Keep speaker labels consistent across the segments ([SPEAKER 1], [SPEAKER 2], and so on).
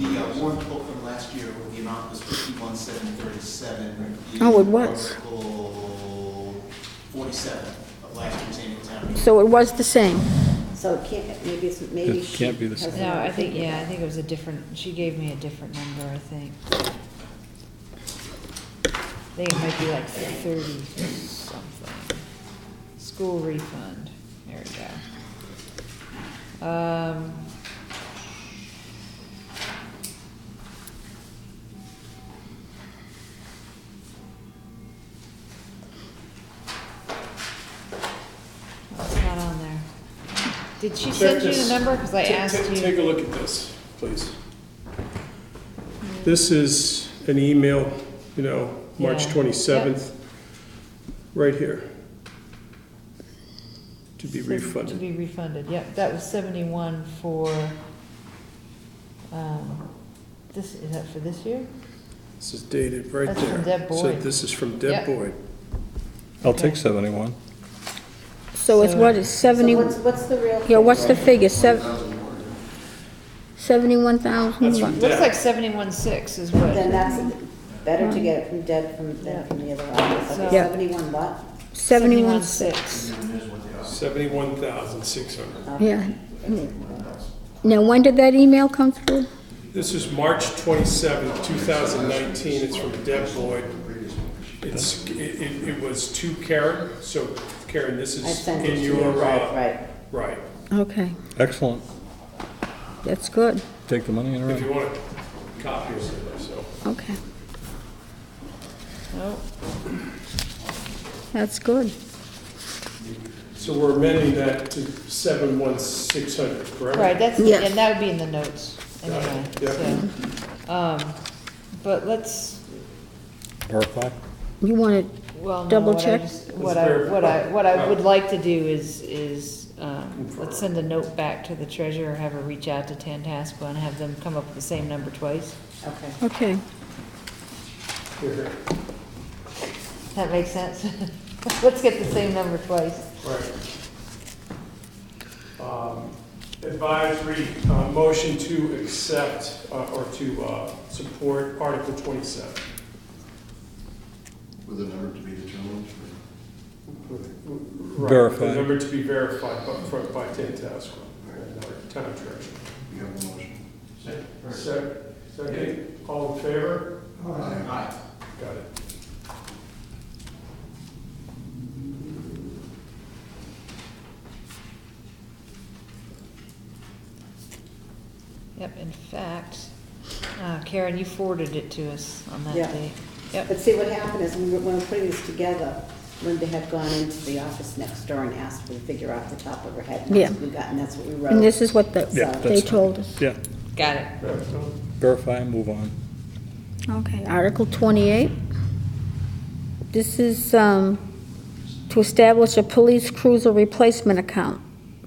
[SPEAKER 1] uh, warrant book from last year where the amount was fifty-one, seven thirty-seven.
[SPEAKER 2] Oh, it was.
[SPEAKER 1] Article forty-seven of last year's annual town meeting.
[SPEAKER 2] So it was the same.
[SPEAKER 3] So it can't, maybe it's, maybe
[SPEAKER 4] It
[SPEAKER 3] she.
[SPEAKER 4] can't be the
[SPEAKER 3] has
[SPEAKER 4] same.
[SPEAKER 5] No, I
[SPEAKER 3] another
[SPEAKER 5] think,
[SPEAKER 3] figure.
[SPEAKER 5] yeah, I think it was a different, she gave me a different number, I think. I think it might be like thirty something. School refund, there we go. Um. Oh, It's not on there. Did she send you the number? Cause I
[SPEAKER 6] Ta- ta-
[SPEAKER 5] asked you.
[SPEAKER 6] Take a look at this, please. This is an email, you know, March
[SPEAKER 5] Yeah.
[SPEAKER 6] 27th, right here. To be
[SPEAKER 5] Seven- To
[SPEAKER 6] refunded.
[SPEAKER 5] be refunded, yep, that was seventy-one for, um, this, is that for this year?
[SPEAKER 6] This is dated right there.
[SPEAKER 5] That's from Deb
[SPEAKER 6] So
[SPEAKER 5] Boyd.
[SPEAKER 6] this is from Deb
[SPEAKER 5] Yep.
[SPEAKER 6] Boyd.
[SPEAKER 4] I'll take 71.
[SPEAKER 2] So it's what, it's
[SPEAKER 3] So
[SPEAKER 2] 70,
[SPEAKER 3] what's, what's the real?
[SPEAKER 2] yeah,
[SPEAKER 3] figure?
[SPEAKER 2] what's the figure? Sev- 71,000
[SPEAKER 6] That's
[SPEAKER 2] what?
[SPEAKER 6] from
[SPEAKER 5] Looks like
[SPEAKER 6] Deb.
[SPEAKER 5] seventy-one six is what.
[SPEAKER 3] Then that's better to get it from Deb from, than from the other office. Okay,
[SPEAKER 2] Yeah.
[SPEAKER 3] seventy-one what?
[SPEAKER 2] 71,
[SPEAKER 5] six.
[SPEAKER 6] $71,600.
[SPEAKER 2] yeah. Now, when did that email come through?
[SPEAKER 6] This is March 27th, 2019. It's from Deb Boyd. It's, it- it it was to Karen, so Karen, this
[SPEAKER 3] I
[SPEAKER 6] is
[SPEAKER 3] sent it to
[SPEAKER 6] in
[SPEAKER 3] you,
[SPEAKER 6] your,
[SPEAKER 3] right,
[SPEAKER 6] uh,
[SPEAKER 3] right.
[SPEAKER 6] right.
[SPEAKER 2] Okay,
[SPEAKER 4] Excellent.
[SPEAKER 2] that's good,
[SPEAKER 4] Take the money and
[SPEAKER 6] If you
[SPEAKER 4] run.
[SPEAKER 6] want a copy or something, so.
[SPEAKER 2] okay,
[SPEAKER 5] Oh,
[SPEAKER 2] that's good.
[SPEAKER 6] So we're amending that to seven one six hundred, correct?
[SPEAKER 5] Right, that's,
[SPEAKER 2] Yes.
[SPEAKER 5] and that would be in the notes,
[SPEAKER 6] Got it,
[SPEAKER 5] anyway,
[SPEAKER 6] yeah.
[SPEAKER 5] so. Um, but let's,
[SPEAKER 4] Verify.
[SPEAKER 2] You want it,
[SPEAKER 5] well, no,
[SPEAKER 2] Double
[SPEAKER 5] what I
[SPEAKER 2] check.
[SPEAKER 5] just, what
[SPEAKER 6] Let's
[SPEAKER 5] I,
[SPEAKER 6] verify.
[SPEAKER 5] what I, what I would
[SPEAKER 6] Right.
[SPEAKER 5] like to do is, is, um, let's send a note back to the treasurer, have her reach out to Tantasqua and have them come up with the same number twice.
[SPEAKER 3] Okay.
[SPEAKER 2] okay,
[SPEAKER 6] Here, here.
[SPEAKER 5] That makes sense. Let's get the same number twice.
[SPEAKER 6] Right. Um, Advisory, uh, motion to accept uh, or to uh, support Article twenty-seven.
[SPEAKER 7] With a number to be determined?
[SPEAKER 6] Right, The
[SPEAKER 4] Verified.
[SPEAKER 6] number to be verified by, for- by Tantascwa, our town treasurer.
[SPEAKER 7] We have a motion.
[SPEAKER 6] Sec- Second, all in favor?
[SPEAKER 1] Aye.
[SPEAKER 6] Got it.
[SPEAKER 5] Yep, in fact, uh, Karen, you forwarded it to us on that
[SPEAKER 3] Yeah.
[SPEAKER 5] date. Yep,
[SPEAKER 3] But see, what happened is, when we were, when we were putting this together, Linda had gone into the office next door and asked for the figure off the top of her head. and that's
[SPEAKER 2] Yeah.
[SPEAKER 3] what We got, and that's what we
[SPEAKER 2] and this
[SPEAKER 3] wrote.
[SPEAKER 2] is what the-
[SPEAKER 4] Yeah,
[SPEAKER 3] So-
[SPEAKER 2] they
[SPEAKER 4] that's-
[SPEAKER 2] told us.
[SPEAKER 4] Yeah,
[SPEAKER 5] got it.
[SPEAKER 4] verify and move on.
[SPEAKER 2] Okay, Article 28. This is um, to establish a police cruiser replacement account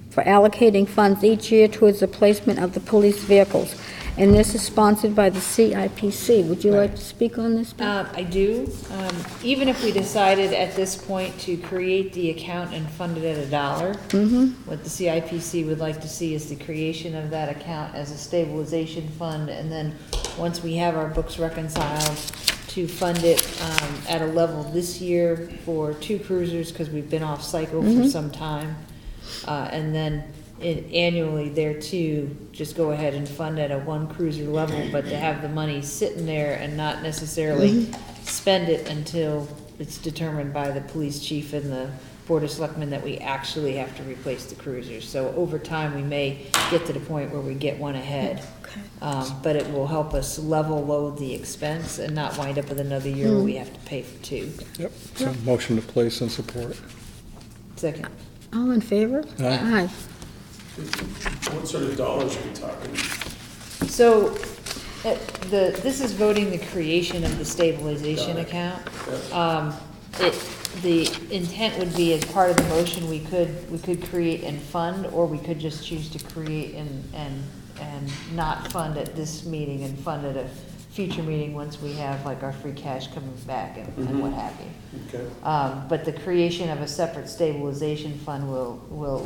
[SPEAKER 2] for allocating funds each year towards the placement of the police vehicles. And this is sponsored by the CIPC. Would you like to speak on this? Bill?
[SPEAKER 5] Um, I do. Um, even if we decided at this point to create the account and fund it at a dollar, what the CIPC would like to see is the creation of that account as a stabilization fund, and then, once we have our books reconciled, to fund it, um, at a level this year for two cruisers, because we've been off cycle for some time. Uh, and then in- annually there too, just go ahead and fund at a one cruiser level, but to have the money sitting there and not necessarily spend it until it's determined by the police chief and the board of selectmen that we actually have to replace the cruisers. So over time, we may get to the point where we get one ahead. Um, but it will help us level load the expense and not wind up with another year where we have to pay for two.
[SPEAKER 4] Yep, so motion to place and support.
[SPEAKER 5] Second,
[SPEAKER 2] All in favor?
[SPEAKER 4] Aye.
[SPEAKER 6] What sort of dollars are we talking?
[SPEAKER 5] So, uh, the, this is voting the creation of the stabilization account. Um, It, the intent would be as part of the motion, we could, we could create and fund, or we could just choose to create and, and, and not fund at this meeting and fund at a future meeting once we have like our free cash coming back and and what have you.
[SPEAKER 6] Okay.
[SPEAKER 5] Um, But the creation of a separate stabilization fund will, will